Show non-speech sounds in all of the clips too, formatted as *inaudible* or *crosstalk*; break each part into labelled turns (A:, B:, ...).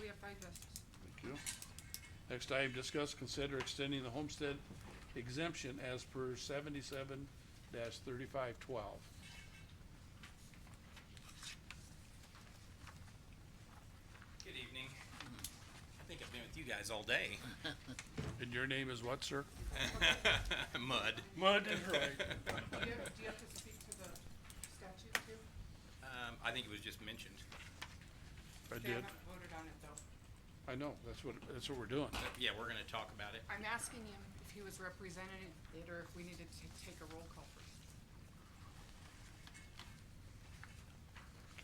A: we have five yeses.
B: Thank you. Next item, discuss, consider extending the homestead exemption as per seventy-seven thirty-five twelve.
C: Good evening. I think I've been with you guys all day. *laughs*
B: And your name is what, sir?
C: Mud.
B: Mud, right.
A: Do you have, do you have to speak to the statute too?
C: Um, I think it was just mentioned.
B: I
A: They
B: did.
A: haven't voted on it though.
B: I know, that's what, that's what we're doing.
C: But Yeah, we're gonna talk about it.
A: I'm asking him if he was represented it or if we needed to take a roll call first.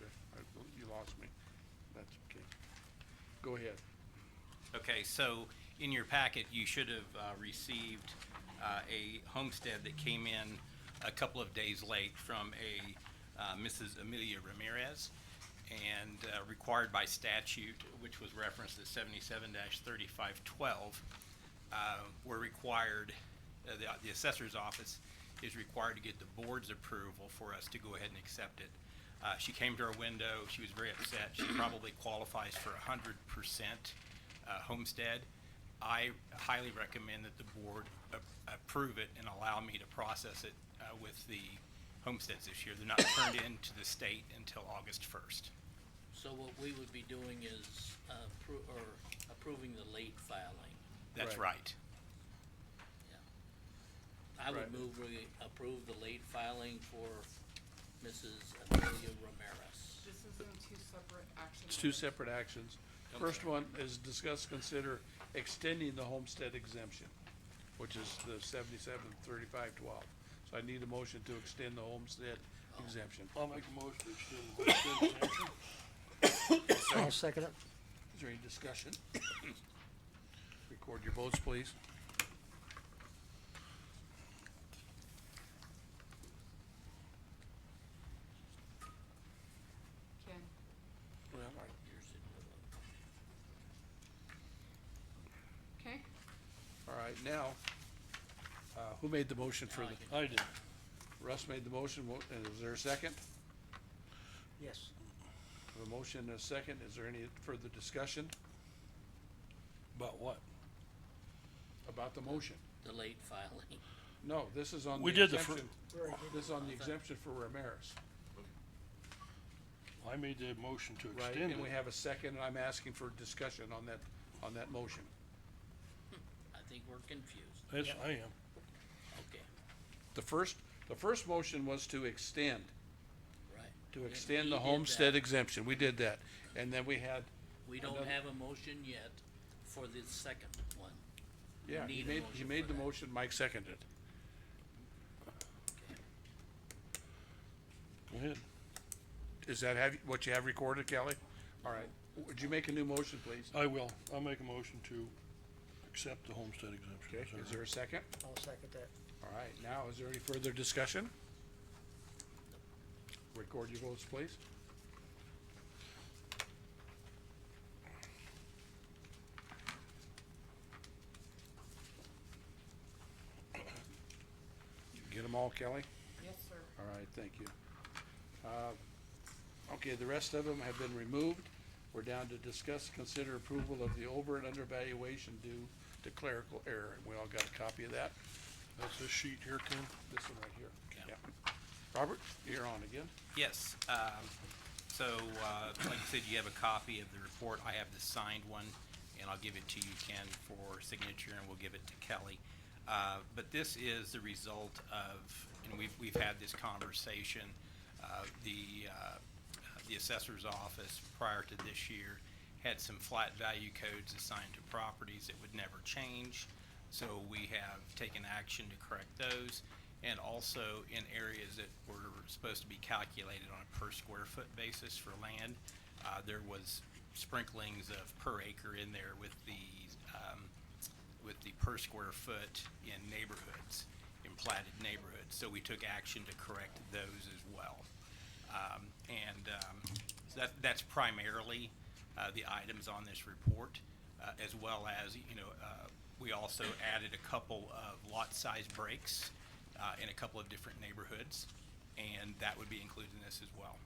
B: Okay, I- You lost me. That's okay. Go ahead.
C: Okay, so in your packet, you should have, uh, received, uh, a homestead that came in a couple of days late from a, uh, Mrs. Amelia Ramirez and, uh, required by statute, which was referenced as seventy-seven thirty-five twelve, uh, were required, uh, the, the assessor's office is required to get the board's approval for us to go ahead and accept it. Uh, she came to our window, she was very upset, she probably qualifies for a hundred percent, uh, homestead. I highly recommend that the board a- approve it and allow me to process it, uh, with the homesteads this year. They're not turned in to the state until August first.
D: So what we would be doing is appro- or approving the late filing,
C: That's
B: Right.
C: right.
D: yeah. I would
B: Right.
D: move we approve the late filing for Mrs. Amelia Ramirez.
A: This is in two separate action
B: It's two
A: items.
B: separate actions. First
C: Okay.
B: one is discuss, consider extending the homestead exemption, which is the seventy-seven thirty-five twelve. So I need a motion to extend the homestead exemption.
E: I'll make a motion to extend the homestead exemption.
F: I'll second it.
B: Is there any discussion? Record your votes, please.
A: Ken,
B: Well,
D: Here's it.
A: okay?
B: All right, now, uh, who made the motion for
D: Now I
B: the,
D: can-
E: I did.
B: Russ made the motion, wo- and is there a second?
F: Yes.
B: A motion and a second, is there any further discussion?
E: About what?
B: About the motion?
D: The late filing.
B: No, this is on the
E: We did the fir-
B: exemption, this is on the exemption for Ramirez,
E: I made the motion to
B: right?
E: extend it.
B: And we have a second, and I'm asking for discussion on that, on that motion.
D: I think we're confused.
E: Yes, I am.
D: Okay,
B: The first, the first motion was to extend,
D: right.
B: to
D: We-
B: extend
D: we
B: the
D: did
B: homestead
D: that.
B: exemption, we did that, and then we had,
D: We don't
B: another-
D: have a motion yet for the second one. We
B: yeah, he
D: need a
B: made, he
D: motion
B: made
D: for
B: the
D: that.
B: motion, Mike seconded it.
D: Okay.
E: Go ahead.
B: Is that have, what you have recorded, Kelly? All right, would you make a new motion, please?
E: I will. I'll make a motion to accept the homestead
B: Okay,
E: exemption.
B: is there a second?
F: I'll second that.
B: All right, now, is there any further discussion? Record your votes, please. Get them all, Kelly?
A: Yes, sir.
B: All right, thank you. Uh, Okay, the rest of them have been removed. We're down to discuss, consider approval of the over and undervaluation due to clerical error. We all got a copy of that,
E: That's this sheet here, Ken?
B: this one right here. Yeah. Robert, you're on again.
C: Yes, um, so, uh, like you said, you have a copy of the report, I have the signed one, and I'll give it to you, Ken, for signature, and we'll give it to Kelly. Uh, but this is the result of, and we've, we've had this conversation, uh, the, uh, the assessor's office prior to this year had some flat value codes assigned to properties that would never change. So we have taken action to correct those and also in areas that were supposed to be calculated on a per square foot basis for land. Uh, there was sprinklings of per acre in there with the, um, with the per square foot in neighborhoods, in platted neighborhoods. So we took action to correct those as well. Um, and, um, so that, that's primarily, uh, the items on this report, uh, as well as, you know, uh, we also added a couple of lot size breaks, uh, in a couple of different neighborhoods, and that would be included in this as well.